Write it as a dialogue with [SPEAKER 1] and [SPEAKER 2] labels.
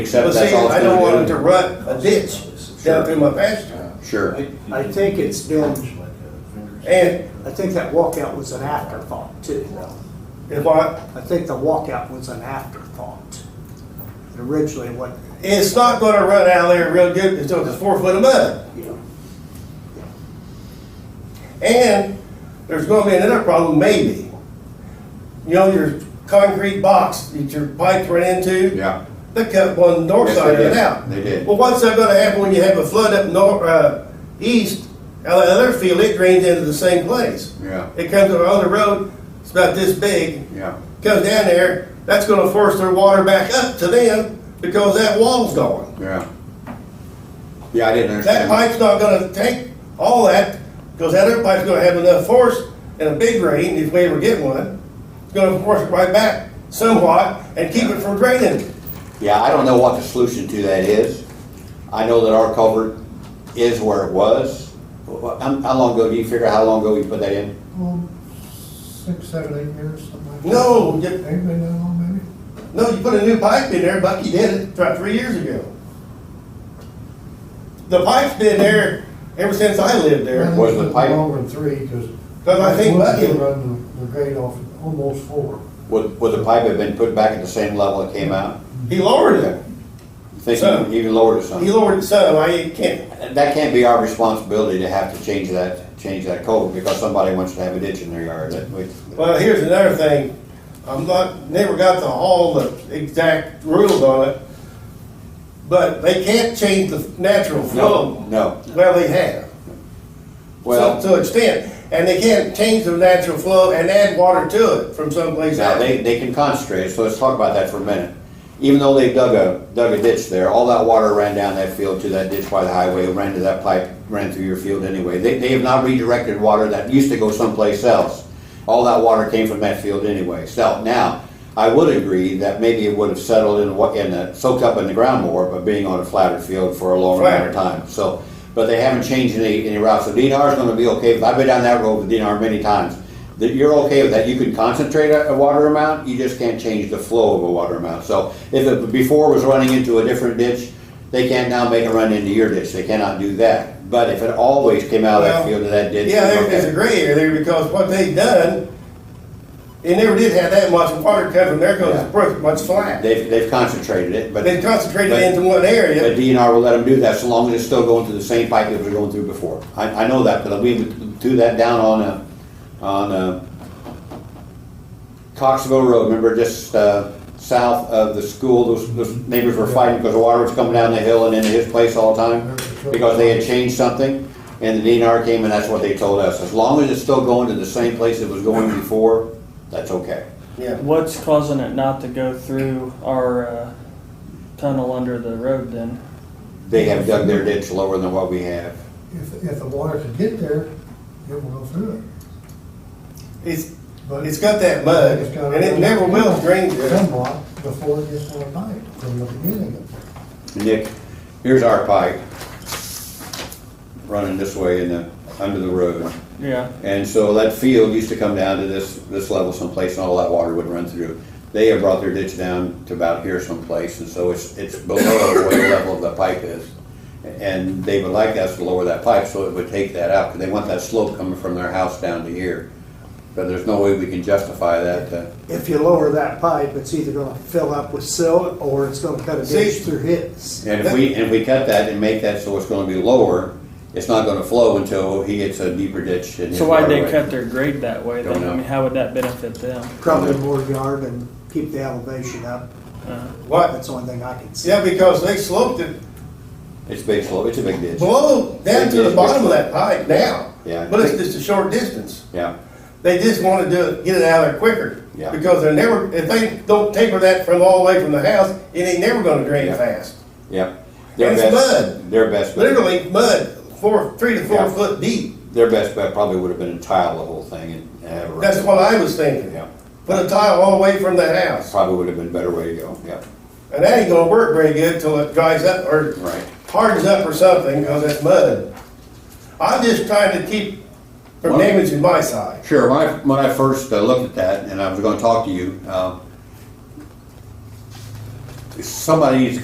[SPEAKER 1] Except
[SPEAKER 2] But
[SPEAKER 1] that's
[SPEAKER 2] see,
[SPEAKER 1] all.
[SPEAKER 2] I
[SPEAKER 1] it's
[SPEAKER 2] don't
[SPEAKER 1] gonna
[SPEAKER 2] want
[SPEAKER 1] do.
[SPEAKER 2] them to rut a ditch down through my pasture.
[SPEAKER 1] Sure.
[SPEAKER 3] I think it's been,
[SPEAKER 2] And
[SPEAKER 3] I think that walkout was an afterthought too.
[SPEAKER 2] if I,
[SPEAKER 3] I think the walkout was an afterthought. Originally, what,
[SPEAKER 2] it's not gonna run out there real good until it's four foot of mud.
[SPEAKER 3] you know,
[SPEAKER 2] And there's gonna be another problem, maybe. You know, your concrete box that your pipes run into?
[SPEAKER 1] Yeah.
[SPEAKER 2] They cut one north
[SPEAKER 1] Yes,
[SPEAKER 2] side
[SPEAKER 1] they
[SPEAKER 2] of it
[SPEAKER 1] did.
[SPEAKER 2] out.
[SPEAKER 1] They did.
[SPEAKER 2] Well, what's that gonna happen when you have a flood up nor, uh, east, out of the other field, it drains into the same place.
[SPEAKER 1] Yeah.
[SPEAKER 2] It comes along the road, it's about this big,
[SPEAKER 1] Yeah.
[SPEAKER 2] comes down there, that's gonna force their water back up to them because that wall's gone.
[SPEAKER 1] Yeah. Yeah, I didn't
[SPEAKER 2] That
[SPEAKER 1] understand.
[SPEAKER 2] pipe's not gonna take all that, because that other pipe's gonna have enough force in a big rain, if we ever get one. It's gonna force it right back somewhat and keep it from draining.
[SPEAKER 1] Yeah, I don't know what the solution to that is. I know that our culvert is where it was. Wha- How, how long ago, do you figure out how long ago we put that in?
[SPEAKER 4] Well, six, seven, eight years, something like that.
[SPEAKER 2] No, you,
[SPEAKER 4] Ain't been that long, maybe?
[SPEAKER 2] no, you put a new pipe in there, Bucky did it about three years ago. The pipe's been there ever since I lived there.
[SPEAKER 4] Mm-hmm.
[SPEAKER 1] was the pipe?
[SPEAKER 4] Longer than three, cause.
[SPEAKER 2] But I think
[SPEAKER 4] once
[SPEAKER 2] Bucky-
[SPEAKER 4] they Run the, the grade off, almost four.
[SPEAKER 1] Would, would the pipe have been put back at the same level it came out?
[SPEAKER 2] He lowered it.
[SPEAKER 1] You Think
[SPEAKER 2] So-
[SPEAKER 1] you even lowered it some?
[SPEAKER 2] He lowered it some, I can't,
[SPEAKER 1] That can't be our responsibility to have to change that, change that culvert because somebody wants to have a ditch in their yard. That we-
[SPEAKER 2] well, here's another thing. I'm not, never got the all the exact rules on it. But they can't change the natural
[SPEAKER 1] No,
[SPEAKER 2] flow.
[SPEAKER 1] no.
[SPEAKER 2] Well, they have.
[SPEAKER 1] Well.
[SPEAKER 2] To to an extent, and they can't change the natural flow and add water to it from someplace
[SPEAKER 1] Now,
[SPEAKER 2] else.
[SPEAKER 1] they, they can concentrate, so let's talk about that for a minute. Even though they dug a, dug a ditch there, all that water ran down that field to that ditch by the highway, ran to that pipe, ran through your field anyway. They, they have not redirected water that used to go someplace else. All that water came from that field anyway. So now, I would agree that maybe it would have settled in, what- in, the- soaked up in the ground more, but being on a flatter field for a longer amount of time. So, but they haven't changed any, any routes, so DNR is gonna be okay, with- I've been down that road with DNR many times. That you're okay with that, you can concentrate a, a water amount, you just can't change the flow of a water amount. So if it before was running into a different ditch, they can't now make it run into your ditch, they cannot do that. But if it always came out of that
[SPEAKER 2] Well,
[SPEAKER 1] field to that ditch.
[SPEAKER 2] Yeah, there-
[SPEAKER 1] okay.
[SPEAKER 2] there's a gray area there because what they done, they never did have that much water come from there because
[SPEAKER 1] Yeah.
[SPEAKER 2] it's pretty much flat.
[SPEAKER 1] They've, they've concentrated it, but.
[SPEAKER 2] They concentrated
[SPEAKER 1] but-
[SPEAKER 2] it into one area.
[SPEAKER 1] The DNR will let them do that, so long as it's still going through the same pipe that it was going through before. I, I know that, but we threw that down on, uh, on, uh, Coxville Road, remember, just, uh, south of the school, those, those neighbors were fighting because the water was coming down the hill and into his place all the time, because they had changed something, and the DNR came, and that's what they told us, as long as it's still going to the same place it was going before, that's okay.
[SPEAKER 2] Yeah.
[SPEAKER 5] What's causing it not to go through our uh, tunnel under the road then?
[SPEAKER 1] They have dug their ditch lower than what we have.
[SPEAKER 4] If, if the water could get there, it will go through it.
[SPEAKER 2] It's,
[SPEAKER 4] But
[SPEAKER 2] it's got that mud
[SPEAKER 4] It's gotta
[SPEAKER 2] and it
[SPEAKER 4] go
[SPEAKER 2] never will drain.
[SPEAKER 4] Somewhat before it gets to the pipe, from the beginning of it.
[SPEAKER 1] Nick, here's our pipe running this way in the, under the road.
[SPEAKER 5] Yeah,
[SPEAKER 1] And so that field used to come down to this, this level someplace and all that water would run through. They have brought their ditch down to about here someplace and so it's, it's below where the level of the pipe is. And they would like us to lower that pipe so it would take that out, because they want that slope coming from their house down to here. But there's no way we can justify that, uh,
[SPEAKER 3] if you lower that pipe, it's either gonna fill up with silt or it's gonna cut a
[SPEAKER 2] See?
[SPEAKER 3] ditch through his.
[SPEAKER 1] And if we, and if we cut that and make that so it's gonna be lower, it's not gonna flow until he gets a deeper ditch in his
[SPEAKER 5] so why'd they
[SPEAKER 1] waterway.
[SPEAKER 5] cut their grade that way
[SPEAKER 1] Don't
[SPEAKER 5] then?
[SPEAKER 1] know.
[SPEAKER 5] I mean, how would that benefit them?
[SPEAKER 3] Probably more yard and keep the elevation up.
[SPEAKER 5] Uh,
[SPEAKER 2] What?
[SPEAKER 3] That's the only thing I can see.
[SPEAKER 2] Yeah, because they sloped it
[SPEAKER 1] It's a big slope, it's a big ditch,
[SPEAKER 2] below, down to the bottom of that pipe now.
[SPEAKER 1] Yeah.
[SPEAKER 2] But it's just a short distance.
[SPEAKER 1] yeah,
[SPEAKER 2] They just wanna do it, get it out of there quicker.
[SPEAKER 1] Yeah.
[SPEAKER 2] Because they're never, if they don't taper that from all the way from the house, it ain't never gonna drain
[SPEAKER 1] Yeah.
[SPEAKER 2] fast.
[SPEAKER 1] yeah. Their
[SPEAKER 2] It's
[SPEAKER 1] best-
[SPEAKER 2] mud.
[SPEAKER 1] Their best, bet-
[SPEAKER 2] Literally mud, four, three to four
[SPEAKER 1] Yeah.
[SPEAKER 2] foot deep.
[SPEAKER 1] their best bet probably would have been to tile the whole thing and have a.
[SPEAKER 2] That's what I was thinking.
[SPEAKER 1] Yeah,
[SPEAKER 2] Put a tile all the way from the house.
[SPEAKER 1] probably would have been a better way to go, yeah,
[SPEAKER 2] And that ain't gonna work very good till it dries up or
[SPEAKER 1] right.
[SPEAKER 2] hardens up or something because it's mud. I'm just trying to keep from
[SPEAKER 1] Well-
[SPEAKER 2] damaging my side.
[SPEAKER 1] Sure, when I, when I first uh, looked at that, and I was gonna talk to you, um, somebody needs to